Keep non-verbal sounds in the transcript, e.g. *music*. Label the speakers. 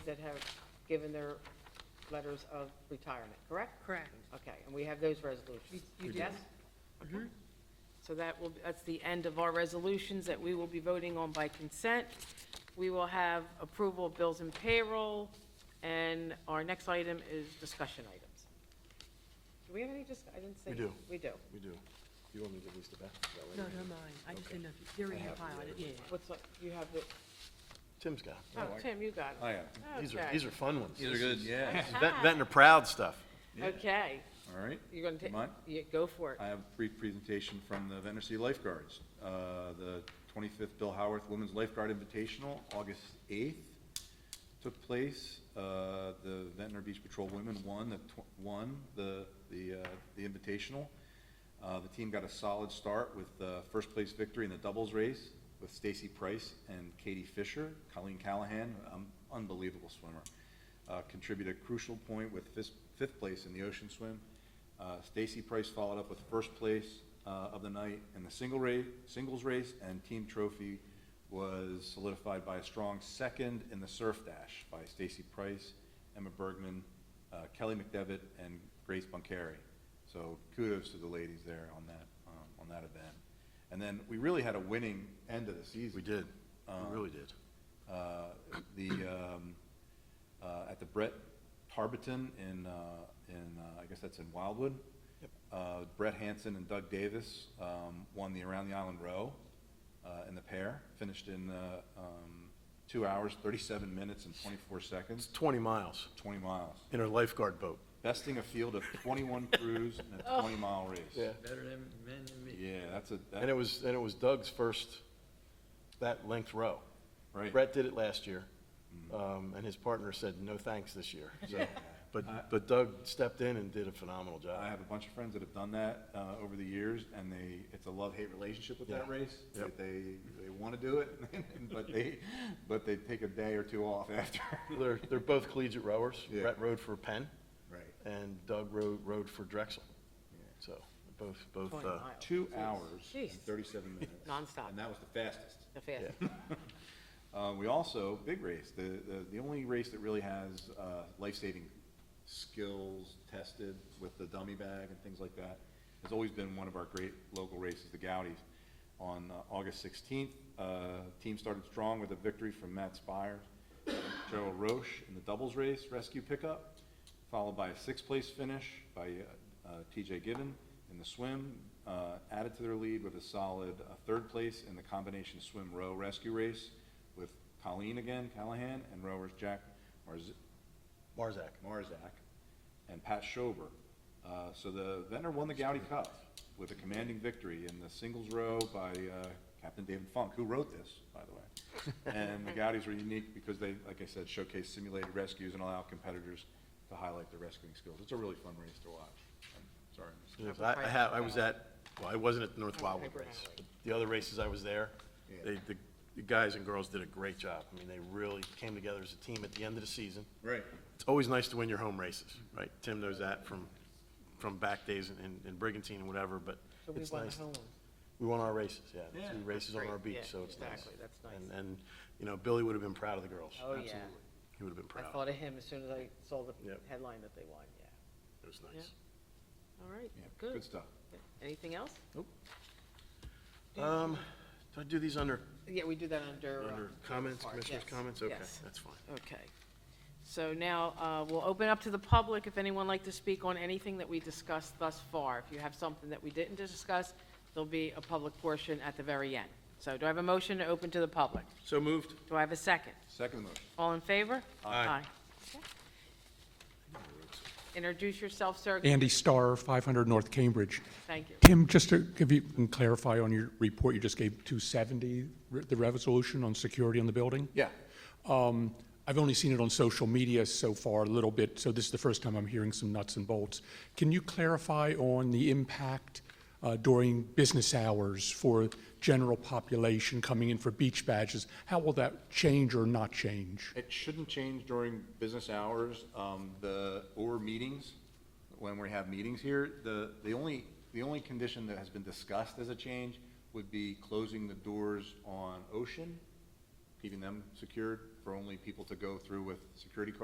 Speaker 1: that have given their letters of retirement, correct?
Speaker 2: Correct.
Speaker 1: Okay, and we have those resolutions?
Speaker 2: You do.
Speaker 1: Yes? Okay. So that will, that's the end of our resolutions that we will be voting on by consent. We will have approval of bills and payroll, and our next item is discussion items. Do we have any discuss, I didn't see.
Speaker 3: We do.
Speaker 1: We do.
Speaker 3: We do. You want me to give these to Beth? Is that what
Speaker 2: No,
Speaker 3: you
Speaker 2: no,
Speaker 3: do?
Speaker 2: mine. I just didn't know, if you- they're in your pile, I didn't- yeah.
Speaker 1: What's, up? you have the,
Speaker 3: Tim's got.
Speaker 1: oh, Tim, you got it.
Speaker 4: I am.
Speaker 3: These are,
Speaker 1: Okay.
Speaker 3: these are fun ones.
Speaker 4: These are good, yeah.
Speaker 3: That, that and the proud stuff.
Speaker 4: Yeah.
Speaker 1: Okay,
Speaker 4: All right.
Speaker 1: you're gonna take,
Speaker 4: Mine?
Speaker 1: yeah, go for it.
Speaker 4: I have a brief presentation from the Ventnor City Lifeguards. Uh, The 25th Bill Howarth Women's Lifeguard Invitational, August 8th, took place. Uh, The Ventnor Beach Patrol women won the, tw- won the, the uh, the invitational. Uh, The team got a solid start with uh first place victory in the doubles race with Stacy Price and Katie Fisher. Colleen Callahan, um, unbelievable swimmer, uh, contributed a crucial point with fis- fifth place in the ocean swim. Uh, Stacy Price followed up with first place uh, of the night in the single race, singles race, and team trophy was solidified by a strong second in the surf dash by Stacy Price, Emma Bergman, uh, Kelly McDevitt, and Grace Bunkary. So kudos to the ladies there on that, um, on that event. And then we really had a winning end of the season.
Speaker 3: We did.
Speaker 4: Uh-huh.
Speaker 3: We really did.
Speaker 4: Uh, the, um, uh, at the Brett Tarbiton in, uh, in, uh, I guess that's in Wildwood. Uh, Brett Hansen and Doug Davis, um, won the Around the Island Row, uh, in the pair, finished in, uh, um, two hours, thirty-seven minutes and twenty-four
Speaker 3: It's
Speaker 4: seconds,
Speaker 3: twenty miles
Speaker 4: twenty miles.
Speaker 3: in a lifeguard boat.
Speaker 4: Besting a field of twenty-one crews in a twenty-mile race.
Speaker 5: Better than men than me.
Speaker 4: Yeah, that's a,
Speaker 3: And it
Speaker 4: that,
Speaker 3: was, and it was Doug's first that length row.
Speaker 4: right. Mm-hmm.
Speaker 3: Brett did it last year, um, and his partner said, no thanks this year.
Speaker 4: *laughs*
Speaker 3: So,
Speaker 4: I-
Speaker 3: But, but Doug stepped in and did a phenomenal
Speaker 4: I
Speaker 3: job.
Speaker 4: have a bunch of friends that have done that uh, over the years, and they, it's a love-hate relationship with that
Speaker 3: Yeah.
Speaker 4: race.
Speaker 3: Yep.
Speaker 4: that They, they want to do it, *laughs* but they, but they take a day or two off after.
Speaker 3: They're, they're both collegiate rowers.
Speaker 4: Yeah.
Speaker 3: Brett rowed for Penn,
Speaker 4: Right.
Speaker 3: and Doug rowed, rowed for Drexel.
Speaker 4: Yeah.
Speaker 3: So, both, both,
Speaker 1: Twenty
Speaker 3: uh,
Speaker 1: miles.
Speaker 4: Two hours and
Speaker 1: Jeez.
Speaker 4: thirty-seven minutes.
Speaker 1: Nonstop.
Speaker 4: And that was the fastest.
Speaker 1: The fast.
Speaker 3: yeah.
Speaker 4: Uh, we also, big race, the, the, the only race that really has, uh, life-saving skills tested with the dummy bag and things like that, has always been one of our great local races, the Goudies. On uh, August sixteenth, uh, team started strong with a victory from Matt Spires, Gerald Roche in the doubles race rescue pickup, followed by a sixth-place finish by, uh, uh, TJ Given in the swim, uh, added to their lead with a solid, uh, third place in the combination swim row rescue race with Colleen again, Callahan, and rowers Jack Marz-
Speaker 3: Marzak.
Speaker 4: Marzak and Pat Schober. Uh, so the Ventnor won the Gaudy Cup with a commanding victory in the singles row by, uh, Captain David Funk, who wrote this, by the way. And the Gaudis were unique because they, like I said, showcase simulated rescues and allow competitors to highlight their rescuing skills. It's a really fun race to watch. I'm sorry. I missed it.
Speaker 3: Yes, I, I have, I was at, well, I wasn't at the North Wildwood
Speaker 1: paper
Speaker 3: race.
Speaker 1: alley.
Speaker 3: but The other races I was there, they, the, the guys and girls did a great job. I mean, they really came together as a team at the end of the season.
Speaker 4: Right.
Speaker 3: It's always nice to win your home races, right? Tim knows that from, from back days in, in Brigantine and whatever, but
Speaker 1: So we
Speaker 3: it's
Speaker 1: won the
Speaker 3: nice.
Speaker 1: home one.
Speaker 3: We won our races, yeah, the
Speaker 4: Yeah.
Speaker 3: two races on
Speaker 1: Great,
Speaker 3: our beach,
Speaker 1: yeah,
Speaker 3: so it's nice.
Speaker 1: exactly, that's nice.
Speaker 3: And, and, you know, Billy would have been proud of the girls.
Speaker 1: Oh, yeah.
Speaker 3: absolutely. He would have been
Speaker 1: I
Speaker 3: proud.
Speaker 1: thought of him as soon as I saw the
Speaker 3: Yep.
Speaker 1: headline that they won, yeah.
Speaker 3: It was nice.
Speaker 1: All right,
Speaker 4: Yeah,
Speaker 1: good.
Speaker 4: good stuff.
Speaker 1: Anything else?
Speaker 3: Um, do I do these under,
Speaker 1: Yeah, we do that under. uh,
Speaker 3: under comments,
Speaker 1: part,
Speaker 3: commissioners'
Speaker 1: yes,
Speaker 3: comments? Okay,
Speaker 1: yes.
Speaker 3: that's fine.
Speaker 1: Okay. So now, uh, we'll open up to the public, if anyone like to speak on anything that we discussed thus far. If you have something that we didn't discuss, there'll be a public portion at the very end. So do I have a motion to open to the public?
Speaker 3: So moved.
Speaker 1: Do I have a second?
Speaker 4: Second motion.
Speaker 1: All in favor?
Speaker 3: Aye.
Speaker 1: Okay. Introduce yourself, sir.
Speaker 6: Andy Starr, 500 North Cambridge.
Speaker 1: Thank you.
Speaker 6: Tim, just to give you, and clarify on your report, you just gave 270, re- the resolution on security on the building?
Speaker 4: Yeah.
Speaker 6: Um, I've only seen it on social media so far, a little bit, so this is the first time I'm hearing some nuts and bolts. Can you clarify on the impact uh, during business hours for general population coming in for beach badges? How will that change or not change?
Speaker 4: It shouldn't change during business hours, um, the, or meetings, when we have meetings here. The, the only, the only condition that has been discussed as a change would be closing the doors on Ocean, keeping them secured, for only people to go through with security cards